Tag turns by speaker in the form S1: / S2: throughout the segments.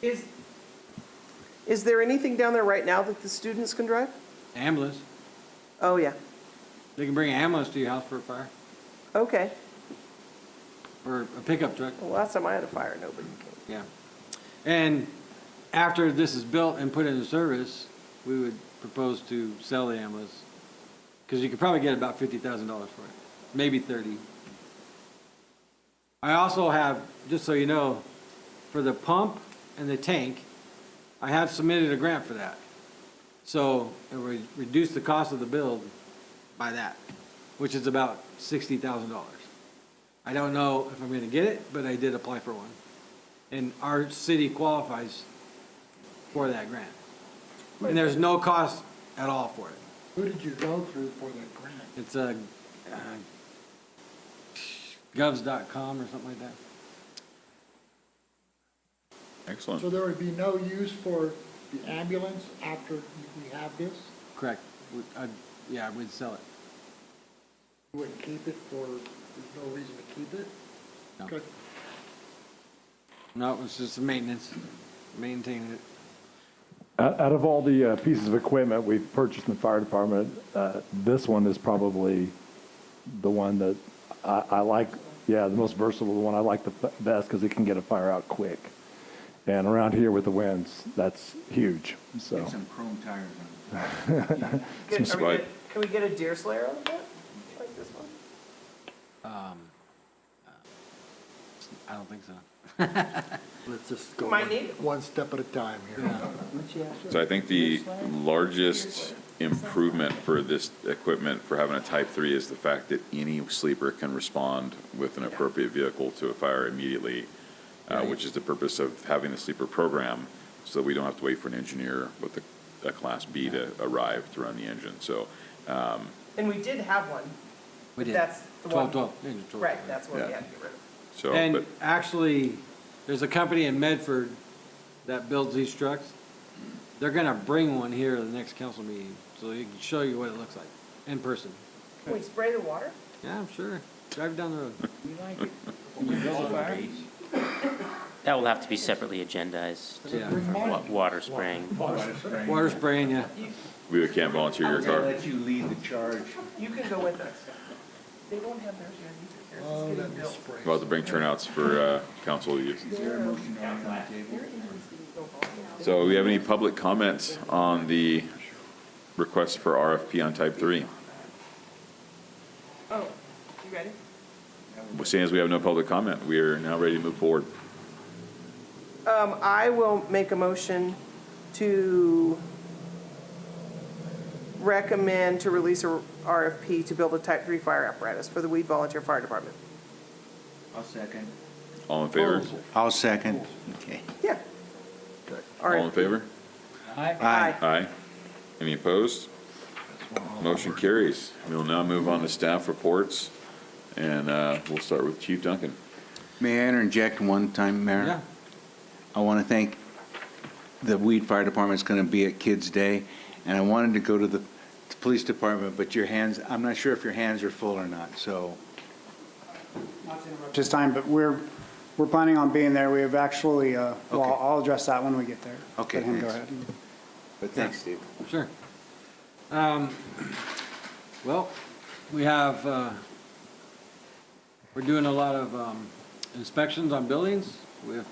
S1: Is,
S2: Is there anything down there right now that the students can drive?
S3: Ambulance,
S2: Oh, yeah.
S3: they can bring an ambulance to your house for a fire,
S2: Okay.
S3: or a pickup truck,
S2: Well, last time I had a fire, nobody came.
S3: yeah. And after this is built and put into service, we would propose to sell the ambulance, because you could probably get about fifty thousand dollars for it, maybe thirty. I also have, just so you know, for the pump and the tank, I have submitted a grant for that. So it would reduce the cost of the build by that, which is about sixty thousand dollars. I don't know if I'm gonna get it, but I did apply for one. And our city qualifies for that grant. And there's no cost at all for it.
S4: Who did you go through for that grant?
S3: It's a, uh, govs.com or something like that.
S4: So
S5: Excellent.
S4: there would be no use for the ambulance after we have this?
S3: Correct. We- I- Yeah, we'd sell it.
S4: You wouldn't keep it for, there's no reason to keep it?
S3: No.
S4: Okay.
S3: No, it's just maintenance, maintaining it.
S6: Out out of all the uh, pieces of equipment we've purchased in the fire department, uh, this one is probably the one that I I like, yeah, the most versatile, the one I like the f- best because it can get a fire out quick. And around here with the winds, that's huge, so.
S5: Get some chrome tires on
S2: Get- are
S5: it. Some
S2: we
S5: spike.
S2: good- Can we get a deer slayer out of that? Like this one?
S3: I don't think so.
S4: Let's just go
S2: Might need it.
S4: one step at a time here.
S5: So I think the largest improvement for this equipment for having a type three is the fact that any sleeper can respond with an appropriate vehicle to a fire immediately, uh, which is the purpose of having the sleeper program, so that we don't have to wait for an engineer with a, a class B to arrive to run the engine. So, um,
S2: And we did have one.
S3: We did.
S2: That's the one.
S3: Twelve, twelve. Ninja 12,
S2: Right,
S3: yeah.
S2: that's what we
S5: Yeah.
S2: had to get rid of.
S5: so, but
S3: And actually, there's a company in Medford that builds these trucks. They're gonna bring one here to the next council meeting, so they can show you what it looks like in person.
S2: Can we spray the water?
S3: Yeah, I'm sure. Drive down the road.
S7: That will have to be separately agendized,
S3: Yeah.
S7: wa- water spraying.
S3: Water spraying, yeah.
S5: we can't volunteer your car.
S8: you lead the charge.
S2: You can go with us. They don't have theirs yet either. Theirs is
S4: Oh,
S2: getting
S4: that'd be
S2: built.
S4: spray.
S5: About to bring turnouts for uh, council use.
S8: Is there a motion on the table?
S5: So we have any public comments on the request for RFP on type three?
S2: Oh, you ready?
S5: Well, Seeing as we have no public comment, we are now ready to move forward.
S2: Um, I will make a motion to recommend to release a RFP to build a type three fire apparatus for the Weed Volunteer Fire Department.
S8: I'll second.
S5: All in favor?
S3: Oh,
S8: I'll second. Okay.
S2: Yeah.
S5: All in
S2: RFP.
S5: favor?
S2: Aye.
S5: Aye. Any opposed? Motion carries. We'll now move on to staff reports, and uh, we'll start with Chief Duncan.
S8: May I interject one time, Mayor?
S3: Yeah.
S8: I want to thank, the Weed Fire Department's going to be at Kids Day, and I wanted to go to the the police department, but your hands, I'm not sure if your hands are full or not, so
S9: this time, but we're, we're planning on being there. We have actually, uh, well,
S8: Okay.
S9: I'll address that when we get there.
S8: Okay,
S9: Let him go
S8: thanks.
S9: ahead.
S8: But thanks, Steve.
S3: Sure. Um, Well, we have, uh, we're doing a lot of um, inspections on buildings. We've,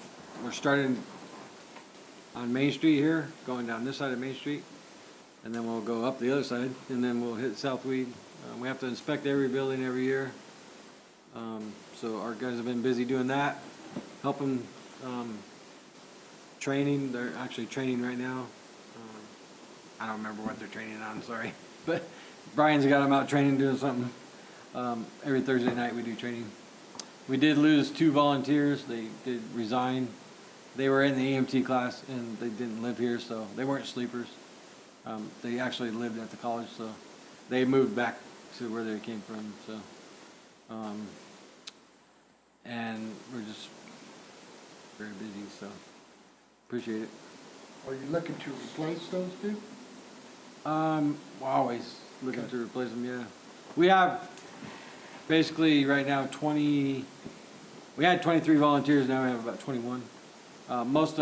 S3: we're starting on Main Street here, going down this side of Main Street, and then we'll go up the other side, and then we'll hit South Weed. Uh, We have to inspect every building every year. Um, So our guys have been busy doing that, helping, um, training, they're actually training right now. Um, I don't remember what they're training on, sorry. But Brian's got them out training, doing something. Um, every Thursday night we do training. We did lose two volunteers. They did resign. They were in the EMT class and they didn't live here, so they weren't sleepers. Um, they actually lived at the college, so they moved back to where they came from, so. Um, and we're just very busy, so appreciate it.
S4: Are you looking to replace those two?
S3: Um, we're always looking to replace them, yeah. We have basically right now twenty, we had twenty-three volunteers, now we have about twenty-one. Uh, most of